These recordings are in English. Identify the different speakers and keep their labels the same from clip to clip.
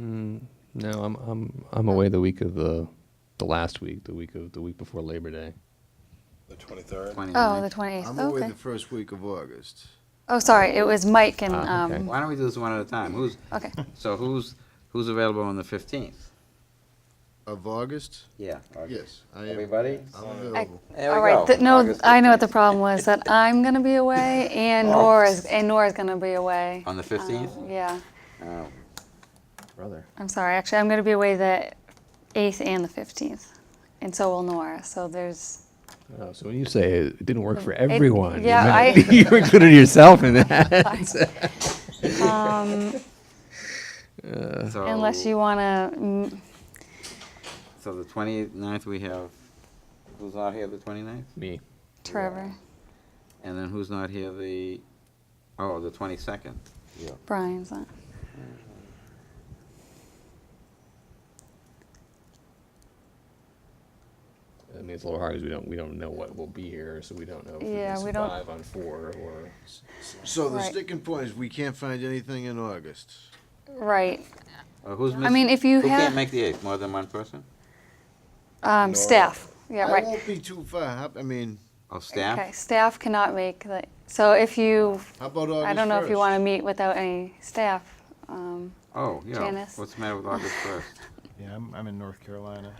Speaker 1: Mm, No, I'm I'm I'm away the week of the the last week, the week of the week before Labor Day.
Speaker 2: The 23rd?
Speaker 3: Oh, the
Speaker 4: 29th.
Speaker 3: 28th,
Speaker 5: I'm away
Speaker 3: okay.
Speaker 5: the first week of August.
Speaker 3: Oh, sorry, it was Mike and,
Speaker 1: Ah, okay.
Speaker 3: um,
Speaker 4: Why don't we do this one at a time? Who's,
Speaker 3: okay.
Speaker 4: so who's, who's available on the 15th?
Speaker 5: Of August?
Speaker 4: Yeah. August.
Speaker 5: Yes, I am,
Speaker 4: Everybody?
Speaker 5: I'm available.
Speaker 4: There we
Speaker 3: All right,
Speaker 4: go,
Speaker 3: th- no,
Speaker 4: August
Speaker 3: I know what
Speaker 4: 15th.
Speaker 3: the problem was, that I'm gonna be away and Nora's, and Nora's gonna be away.
Speaker 4: On the
Speaker 3: Um,
Speaker 4: 15th?
Speaker 3: Yeah,
Speaker 4: Oh,
Speaker 1: Brother.
Speaker 3: I'm sorry, actually, I'm gonna be away the 8th and the 15th, and so will Nora, so there's.
Speaker 1: Oh, so when you say it didn't work for everyone, you
Speaker 3: Mm, yeah,
Speaker 1: meant-
Speaker 3: I-
Speaker 1: you included yourself in that.
Speaker 3: Um,
Speaker 4: so-
Speaker 3: unless you wanna, mm,
Speaker 4: So the 29th, we have, who's not here the 29th?
Speaker 1: Me.
Speaker 3: Trevor,
Speaker 4: And then who's not here the, oh, the 22nd?
Speaker 3: Brian's on.
Speaker 1: I mean, it's a little hard because we don't we don't know what will be here, so we don't know if
Speaker 3: Yeah,
Speaker 1: we
Speaker 3: we
Speaker 1: can
Speaker 3: don't-
Speaker 1: survive on four or.
Speaker 5: So the
Speaker 3: Right.
Speaker 5: sticking point is we can't find anything in August.
Speaker 3: Right,
Speaker 4: Or Uh, who's missing?
Speaker 3: mean, if you
Speaker 4: Who
Speaker 3: have-
Speaker 4: can't make the 8th? More than one person?
Speaker 3: um, staff, yeah,
Speaker 5: I
Speaker 3: right.
Speaker 5: won't be too far, How- I mean,
Speaker 4: Oh, staff?
Speaker 3: Okay, staff cannot make the, so if you,
Speaker 5: how about August 1st?
Speaker 3: I don't know if you wanna meet without any staff, um.
Speaker 4: Oh, yeah.
Speaker 3: Janice.
Speaker 4: What's the matter with August 1st?
Speaker 6: Yeah, I'm, I'm in North Carolina.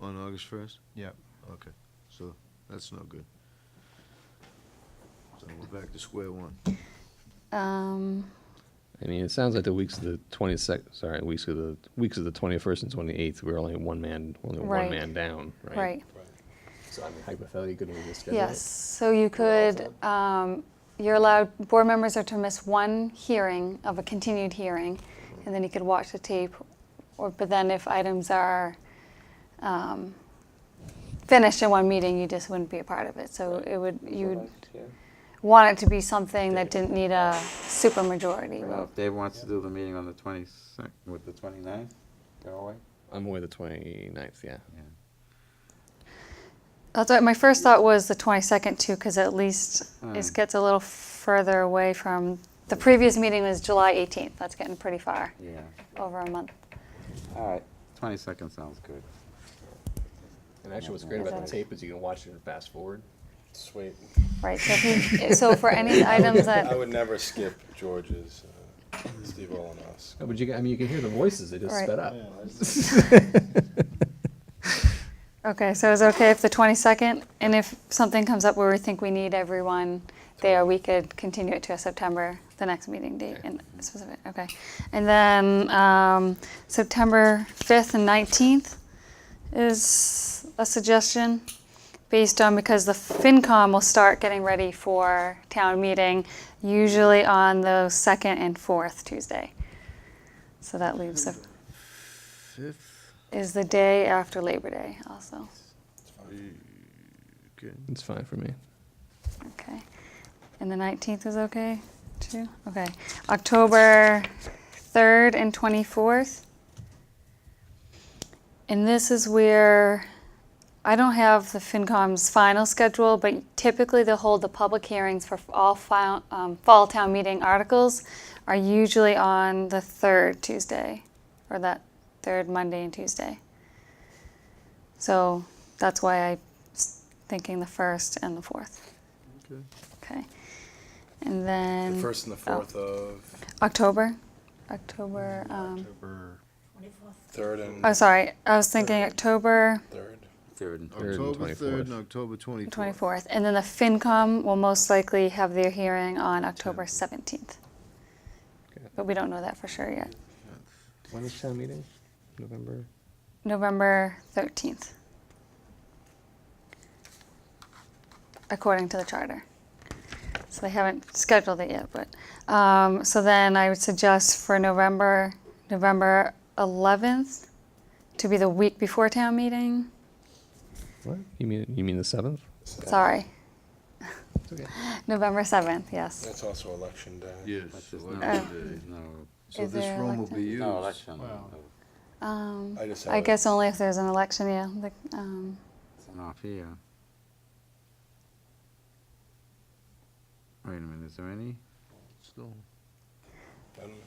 Speaker 5: On August 1st?
Speaker 6: Yep.
Speaker 5: Okay, so that's no good. So we're back to square one.
Speaker 3: Um,
Speaker 1: I mean, it sounds like the weeks of the twenty second, sorry, weeks of the weeks of the twenty first and twenty eighth, we're only one man, only
Speaker 3: Right.
Speaker 1: one man down, right?
Speaker 3: right,
Speaker 1: So I mean, hypothetically, couldn't we just schedule it?
Speaker 3: yes, so you could, um, you're allowed, board members are to miss one hearing of a continued hearing, and then you could watch the tape, or, but then if items are, um, finished in one meeting, you just wouldn't be a part of it, so it would, you'd want it to be something that didn't need a super majority
Speaker 4: Well, if Dave wants to do the meeting on the 22nd, with the 29th, go away.
Speaker 1: I'm away the 29th, yeah.
Speaker 3: That's what my first thought was the 22nd too, because at least
Speaker 4: Mm.
Speaker 3: it gets a little further away from, the previous meeting was July 18th. That's getting pretty far,
Speaker 4: Yeah.
Speaker 3: over a month.
Speaker 4: All right. 22nd sounds good.
Speaker 1: And actually, what's great
Speaker 3: Is
Speaker 1: about the
Speaker 3: that-
Speaker 1: tape is you can watch it and fast forward.
Speaker 2: Sweet.
Speaker 3: Right, so if you, so for any items
Speaker 2: I
Speaker 3: that,
Speaker 2: would never skip George's, uh, Steve Olinos.
Speaker 1: Oh, but you, I mean, you can hear the voices, they just
Speaker 3: Right.
Speaker 1: sped up.
Speaker 3: okay, so is it okay if the 22nd? And if something comes up where we think we need everyone there, we could continue it to a September, the next meeting date and specific, okay. And then um, September 5th and 19th is a suggestion. based on because the FinCom will start getting ready for town meeting usually on the second and fourth Tuesday. So that leaves the,
Speaker 5: Fifth,
Speaker 3: is the day after Labor Day also.
Speaker 5: okay.
Speaker 1: It's fine for me.
Speaker 3: Okay. And the 19th is okay too? Okay. October 3rd and 24th. And this is where I don't have the FinCom's final schedule, but typically they'll hold the public hearings for all file, um, fall town meeting articles are usually on the third Tuesday or that third Monday and Tuesday. So that's why I'm thinking the first and the fourth.
Speaker 5: Okay.
Speaker 3: Okay. And then
Speaker 2: The first and the
Speaker 3: oh.
Speaker 2: fourth of,
Speaker 3: October. October.
Speaker 2: Mm-hmm.
Speaker 3: Um,
Speaker 6: October.
Speaker 2: third and
Speaker 3: oh, sorry. I was thinking October
Speaker 2: third.
Speaker 4: Third and
Speaker 1: Third and
Speaker 5: October 3rd
Speaker 1: 24th.
Speaker 5: and October 24th.
Speaker 3: 24th. And then the FinCom will most likely have their hearing on October 17th.
Speaker 1: Okay.
Speaker 3: But we don't know that for sure yet.
Speaker 1: When is town meeting? November?
Speaker 3: November 13th. According to the charter. So they haven't scheduled it yet, but, um, so then I would suggest for November, November 11th to be the week before town meeting.
Speaker 1: What? You mean, you mean the 7th?
Speaker 3: Sorry,
Speaker 1: It's okay.
Speaker 3: November 7th, yes.
Speaker 2: That's also election day.
Speaker 5: Yes,
Speaker 4: That's just not-
Speaker 5: election day.
Speaker 4: No,
Speaker 5: So
Speaker 3: Oh. Is
Speaker 5: this
Speaker 3: there
Speaker 5: room will be used.
Speaker 4: no election.
Speaker 6: Wow.
Speaker 4: no,
Speaker 3: Um,
Speaker 2: I just
Speaker 3: I
Speaker 2: have it.
Speaker 3: guess only if there's an election, yeah. the- um,
Speaker 4: It's not here. Wait a minute, is there any?
Speaker 5: Still.
Speaker 2: I don't know.